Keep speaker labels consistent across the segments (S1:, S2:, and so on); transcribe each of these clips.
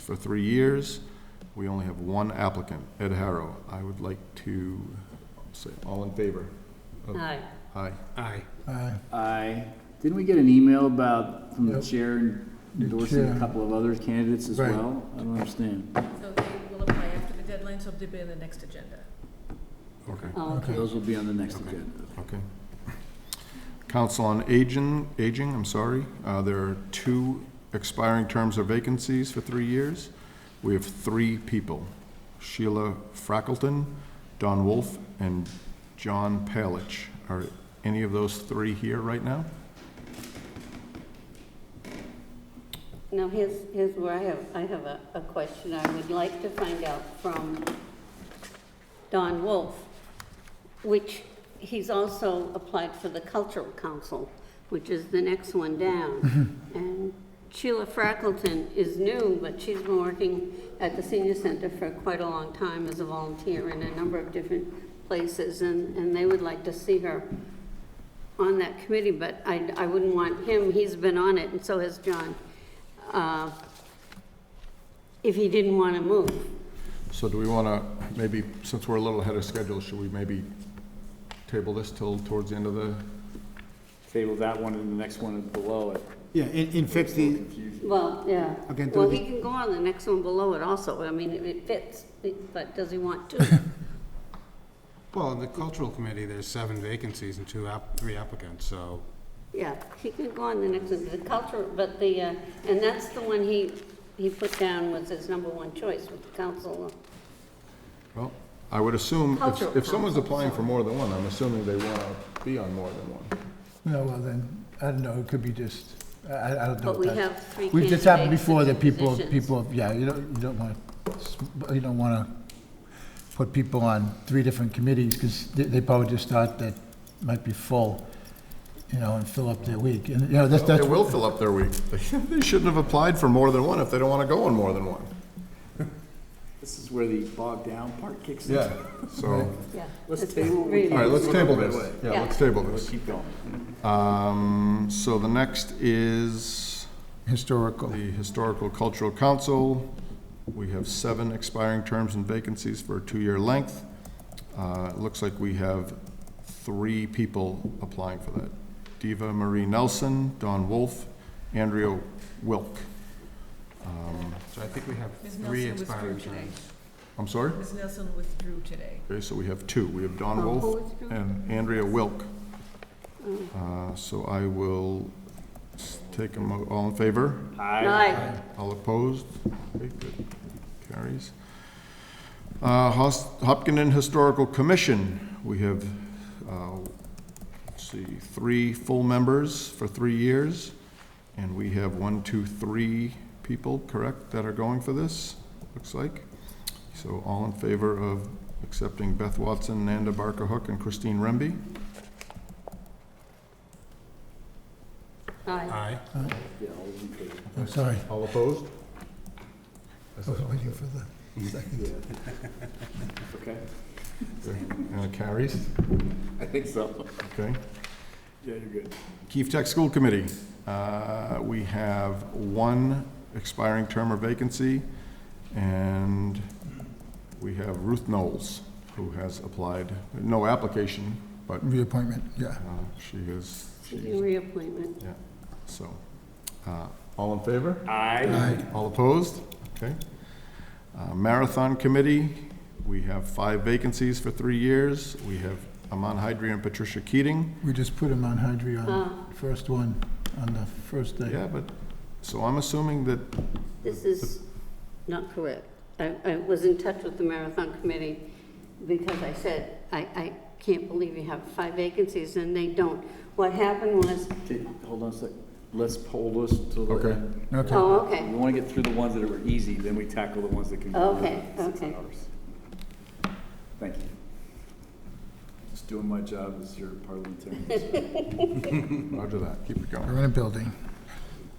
S1: for three years. We only have one applicant, Ed Harrow. I would like to say, all in favor?
S2: Aye.
S1: Aye.
S3: Aye.
S4: Aye.
S5: Aye. Didn't we get an email about, from the
S4: Yep.
S5: chair endorsing
S4: chair.
S5: a couple of other candidates as
S4: Right.
S5: well? I don't understand.
S6: So they will apply after the deadline, so they'll be on the next agenda.
S1: Okay.
S2: Oh, okay.
S5: Those will be on the next agenda.
S1: Okay. Council on Aging, Aging, I'm sorry. Uh, There are two expiring terms or vacancies for three years. We have three people, Sheila Frackleton, Don Wolf, and John Palich. Are any of those three here right now?
S2: Now, here's, here's where I have, I have a, a question I would like to find out from Don Wolf, which he's also applied for the Cultural Council, which is the next one down. And Sheila Frackleton is new, but she's been working at the senior center for quite a long time as a volunteer in a number of different places, and, and they would like to see her on that committee, but I, I wouldn't want him, he's been on it, and so has John, uh, if he didn't want to move.
S1: So do we want to, maybe, since we're a little ahead of schedule, should we maybe table this till towards the end of the,
S5: Table that one and the next one below it.
S3: Yeah, in, in fact, the,
S2: Well, yeah.
S3: Again, do
S2: Well,
S3: the-
S2: he can go on the next one below it also, I mean, it- it fits, but does he want to?
S3: well, in the cultural committee, there's seven vacancies and two app, three applicants, so,
S2: Yeah, he can go on the next one, the culture, but the, uh, and that's the one he, he put down was his number one choice with the council.
S1: well, I would assume, if-
S2: Cultural
S1: if someone's
S2: Council,
S1: applying
S2: so-
S1: for more than one, I'm assuming they want to be on more than one.
S4: No, well then, I don't know, it could be just, I, I I don't know.
S2: But we
S4: that-
S2: have three
S4: We've just happened
S2: candidates
S4: before
S2: in
S4: that people,
S2: positions.
S4: people, yeah, you don't, you don't want, you don't want to put people on three different committees because they, they probably just thought that might be full, you know, and fill up their week. And, you know, that's,
S1: They
S4: that's,
S1: will fill up their week. They shouldn't have applied for more than one if they don't want to go on more than one.
S5: This is where the bogged down part kicks in.
S1: So, all
S2: Yeah.
S5: Let's table what we
S2: Really.
S5: can.
S2: All
S1: right, let's table
S5: Right
S1: this.
S5: away.
S1: Yeah,
S2: Yeah.
S1: let's table
S5: Let's
S1: this.
S5: keep going.
S1: Um, so the next is
S4: historical.
S1: the Historical Cultural Council. We have seven expiring terms and vacancies for a two-year length. Uh, it looks like we have three people applying for that. Diva Marie Nelson, Don Wolf, Andrea Wilk.
S3: so I think we have
S6: Ms.
S3: three
S6: Nelson withdrew
S3: expiring
S6: today.
S3: terms.
S1: I'm sorry?
S6: Ms. Nelson withdrew today.
S1: Okay, so we have two. We have Don
S2: Oh, who
S1: Wolf
S2: withdrew?
S1: and Andrea Wilk. Uh, So I will s- take them, all in favor?
S5: Aye.
S2: Aye.
S1: All opposed? Okay, good. Carries. Uh, Hos- Hopkinton Historical Commission, we have, uh, let's see, three full members for three years, and we have one, two, three people, correct, that are going for this, looks like. So all in favor of accepting Beth Watson, Nanda Barker Hook, and Christine Remby?
S2: Aye.
S3: Aye.
S5: Yeah, all those in favor.
S4: I'm oh, sorry,
S1: All opposed?
S4: I was waiting for the second.
S5: Okay.
S1: And it carries,
S5: I think so.
S1: okay.
S5: Yeah, you're good.
S1: Keefe Tech School Committee, uh, we have one expiring term or vacancy, and we have Ruth Knowles, who has applied, no application, but
S4: Reappointment, yeah.
S1: uh, she is, she is-
S2: Reappointment.
S1: yeah, so. uh, All in favor?
S5: Aye.
S1: All opposed? Okay. Uh, Marathon Committee, we have five vacancies for three years. We have Aman Hydri and Patricia Keating.
S4: We just put him on Hydri
S2: Ah.
S4: on the first one, on the first day.
S1: Yeah, but, so I'm assuming that
S2: This is not correct. I, I was in touch with the Marathon Committee because I said, I, I can't believe you have five vacancies and they don't. What happened was,
S5: Okay, Hold on a sec. Let's hold this till the
S1: Okay.
S5: end.
S4: Okay.
S2: oh,
S5: We
S2: okay,
S5: want to get through the ones that were easy, then we tackle the ones that can. go
S2: Okay,
S5: over six
S2: okay.
S5: hours. Thank you. Just doing my job as your parliamentarian.
S1: Roger that, keep it going.
S4: We're in a building.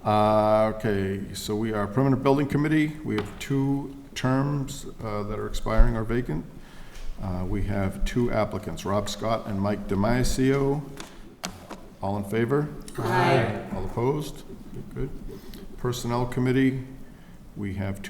S1: Uh, Okay, so we are Permanent Building Committee. We have two terms uh, that are expiring or vacant. Uh, We have two applicants, Rob Scott and Mike DiMaiaseo. All in favor?
S2: Aye.
S1: All opposed? Good. Personnel Committee, we have two.